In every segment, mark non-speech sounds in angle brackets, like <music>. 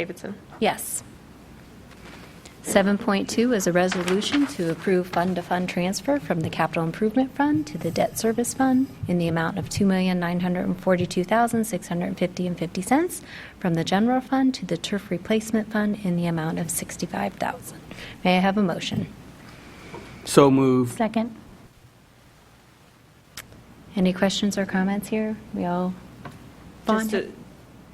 Davidson. Yes. 7.2 is a resolution to approve fund-to-fund transfer from the Capital Improvement Fund to the Debt Service Fund in the amount of $2,942,650.50 from the General Fund to the Turf Replacement Fund in the amount of $65,000. May I have a motion? So moved. Second. Any questions or comments here? We all Just bonded? to-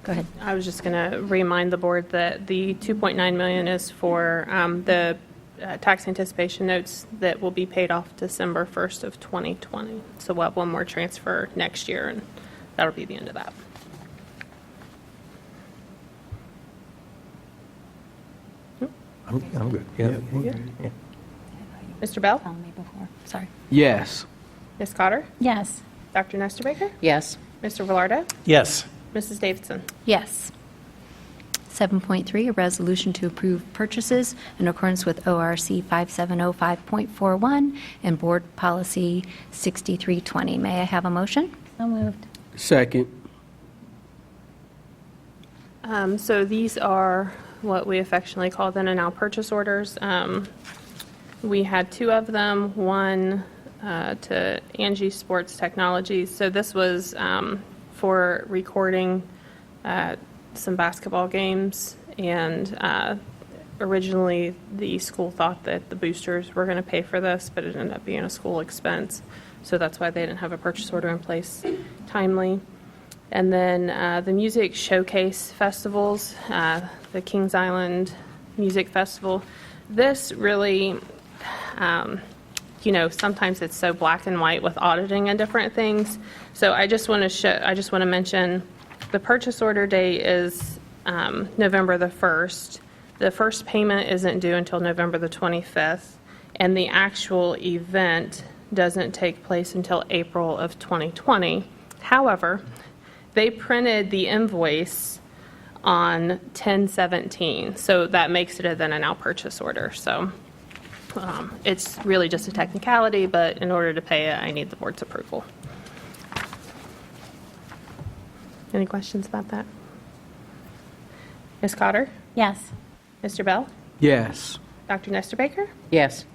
Go ahead. I was just going to remind the board that the 2.9 million is for um, the uh, tax anticipation notes that will be paid off December 1st of 2020. So we'll have one more transfer next year, and that'll be the end of that. I'm, I'm good. Yeah. Mr. Bell? Found me before, sorry. Yes. Ms. Cotter? Yes. Dr. Nestor Baker? Yes. Mr. Velardo? Yes. Mrs. Davidson? Yes. 7.3, a resolution to approve purchases in accordance with ORC 5705.41 and Board Policy 6320. May I have a motion? So moved. Second. Um, So these are what we affectionately call then and now purchase orders. Um, We had two of them, one uh, to Angie Sports Technologies. So this was um, for recording uh, some basketball games. And uh, originally, the school thought that the boosters were going to pay for this, but it ended up being a school expense. So that's why they didn't have a purchase order in place timely. And then uh, the music showcase festivals, uh, the Kings Island Music Festival. This really, um, you know, sometimes it's so black and white with auditing and different things. So I just want to show, I just want to mention, the purchase order date is um, November the 1st. The first payment isn't due until November the 25th, and the actual event doesn't take place until April of 2020. However, they printed the invoice on 1017, so that makes it a then and now purchase order. So um, it's really just a technicality, but in order to pay it, I need the board's approval. Any questions about that? Ms. Cotter? Yes. Mr. Bell? Yes. Dr. Nestor Baker? Yes.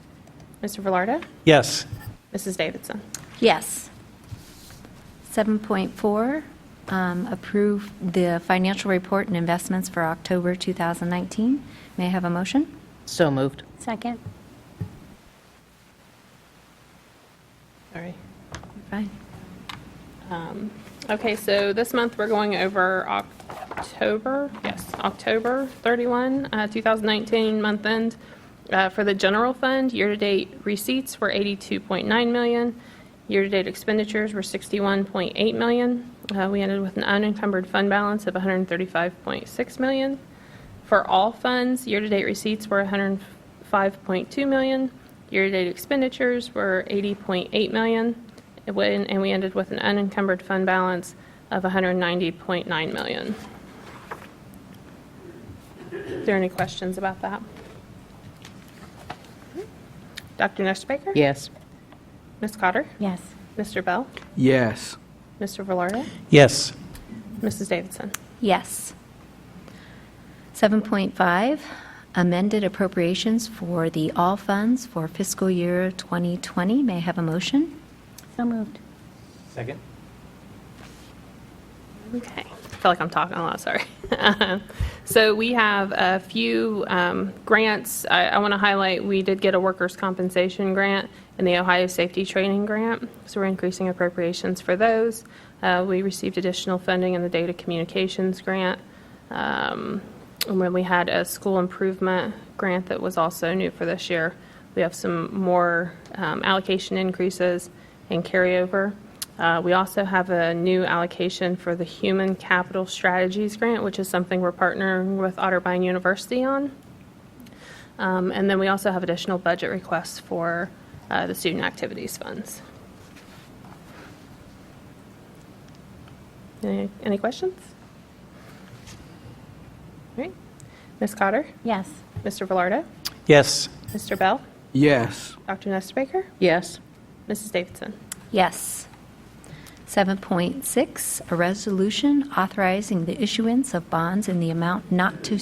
Mr. Velardo? Yes. Mrs. Davidson? Yes. 7.4, um, approve the financial report and investments for October 2019. May I have a motion? So moved. Second. Sorry. Fine. Okay, so this month, we're going over October, yes, October 31, uh, 2019, month end. Uh, For the general fund, year-to-date receipts were 82.9 million, year-to-date expenditures were 61.8 million. Uh, We ended with an unencumbered fund balance of 135.6 million. For all funds, year-to-date receipts were 105.2 million, year-to-date expenditures were 80.8 million, and when- and we ended with an unencumbered fund balance of 190.9 million. Is there any questions about that? Dr. Nestor Baker? Yes. Ms. Cotter? Yes. Mr. Bell? Yes. Mr. Velardo? Yes. Mrs. Davidson? Yes. 7.5, amended appropriations for the all funds for fiscal year 2020. May I have a motion? So moved. Second? Okay, I feel like I'm talking a lot, sorry. <laughs> Um, So we have a few um, grants. I, I want to highlight, we did get a workers' compensation grant and the Ohio Safety Training Grant, so we're increasing appropriations for those. Uh, We received additional funding in the Data Communications Grant. Um, And when we had a school improvement grant that was also new for this year, we have some more um, allocation increases and carryover. Uh, We also have a new allocation for the Human Capital Strategies Grant, which is something we're partnering with Otterbein University on. Um, And then we also have additional budget requests for uh, the Student Activities Funds. Any any questions? All right. Ms. Cotter? Yes. Mr. Velardo? Yes. Mr. Bell? Yes. Dr. Nestor Baker? Yes. Mrs. Davidson? Yes. 7.6, a resolution authorizing the issuance of bonds in the amount not to